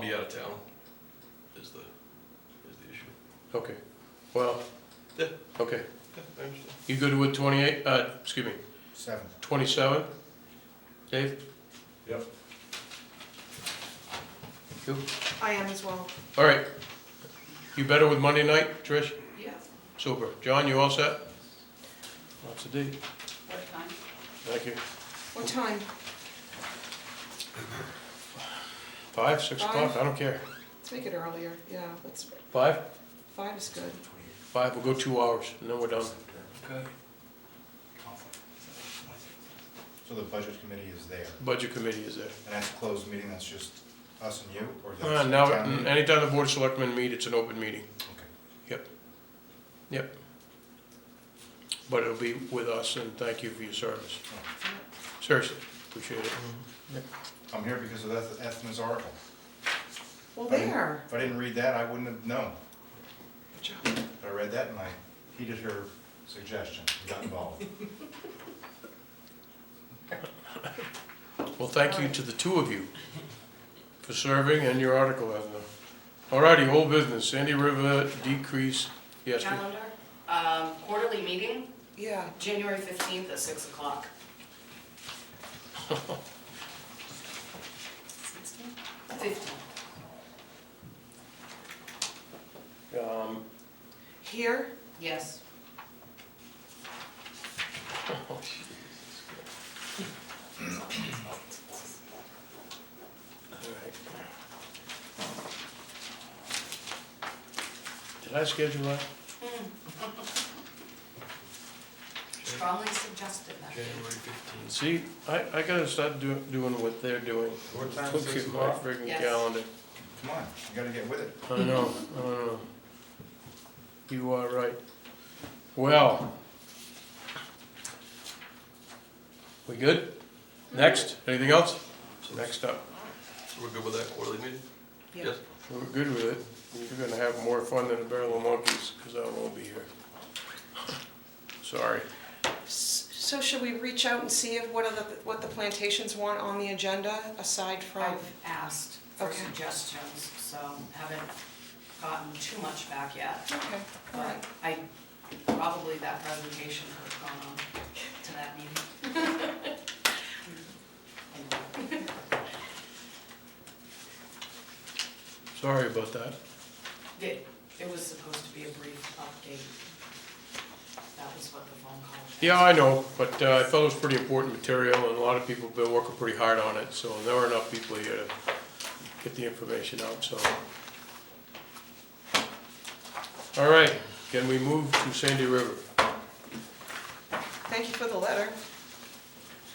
be out of town, is the, is the issue. Okay, well, Yeah, okay. yeah, I understand. You good with twenty-eight, uh, excuse me, Seven. twenty-seven? Dave? Yep. You? I am as well. All right. You better with Monday night, Trish? Yeah. Super. John, you all set? Lots of D. What time? Thank you. What time? Five, six o'clock, I don't care. Let's make it earlier. Yeah, that's, Five? five is good. Five, we'll go two hours, and then we're done. So the budget committee is there, Budget committee is there. and that's a closed meeting, that's just us and you, or Uh, that's Now, town meeting? anytime the board of selectmen meet, it's an open meeting. Okay. Yep. Yep. But it'll be with us, and thank you for your service. Seriously, appreciate it. I'm here because of Eth- Ethna's article. Well, I didn't- there. If I didn't read that, I wouldn't have known, Good job. but I read that and I heeded her suggestion, and got involved. Well, thank you to the two of you for serving and your article, Edna. Alrighty, whole business, Sandy River decrease, yes, we- Calendar, um, quarterly meeting, Yeah, January fifteenth at six o'clock. Sixteen? Fifteen. um, here, Yes. oh, alright. Did I schedule that? Strongly suggested that. January fifteenth. See, I, I gotta start do, doing what they're doing. What time, Look six at my o'clock? friggin' Yes. calendar. Come on, you gotta get with it. I know, I know. You are right. Well. We good? Next, anything else? So Next up, so we're good with that quarterly meeting? Yeah. Yes. we're good with it. You're gonna have more fun than a barrel of monkeys, because I won't be here. Sorry. S- So should we reach out and see if, what are the, what the plantations want on the agenda aside from? I've asked for Okay. suggestions, so haven't gotten too much back yet. Okay, all right. But I, probably that presentation would have gone on to that meeting. Sorry about that. It, it was supposed to be a brief update. That was what the phone call was. Yeah, I know, but uh, I felt it was pretty important material, and a lot of people have been working pretty hard on it, so there were enough people here to get the information out, so. All right, can we move to Sandy River? Thank you for the letter.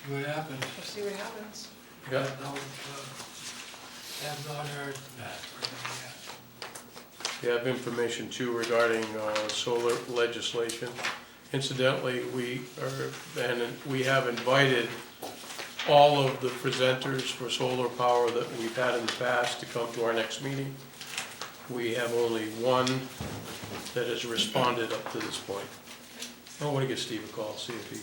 See what happens. We'll see what happens. Yeah, I don't, uh, Have not heard uh, back from them yet. we have information too regarding uh, solar legislation. Incidentally, we are, and we have invited all of the presenters for solar power that we've had in the past to come to our next meeting. We have only one that has responded up to this point. Oh, I want to give Steve a call, see if he,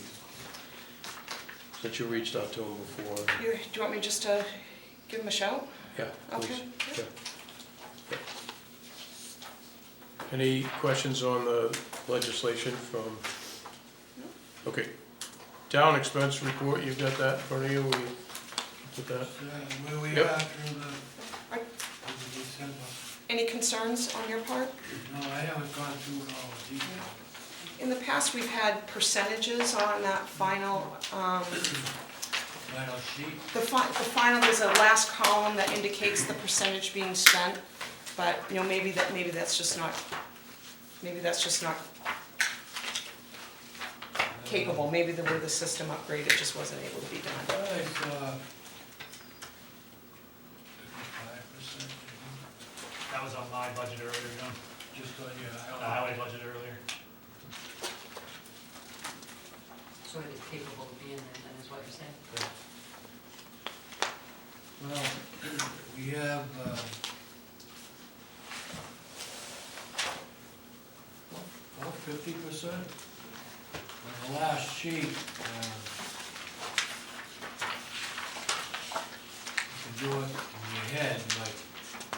since you reached out to him before. You, do you want me just to give them a shout? Yeah, please. Okay. Yeah. Yeah. Any questions on the legislation from? Okay. Town expense report, you've got that in front of you, we did that. So, Where we Yep. are through the, Are- through the December. Any concerns on your part? No, I haven't gone through it all the detail. In the past, we've had percentages on that final, um, Final sheet, the fi- the final, there's a last column that indicates the percentage being spent, but, you know, maybe that, maybe that's just not, maybe that's just not capable, maybe the way the system upgraded just wasn't able to be I done. saw fifty-five percent, That was on my budget earlier, you just on your know, highway. the highway budget earlier. So it is capable of being there, then is what you're saying? Well, we have, uh, well, oh, fifty percent. On the last sheet, uh, you can do it in your head,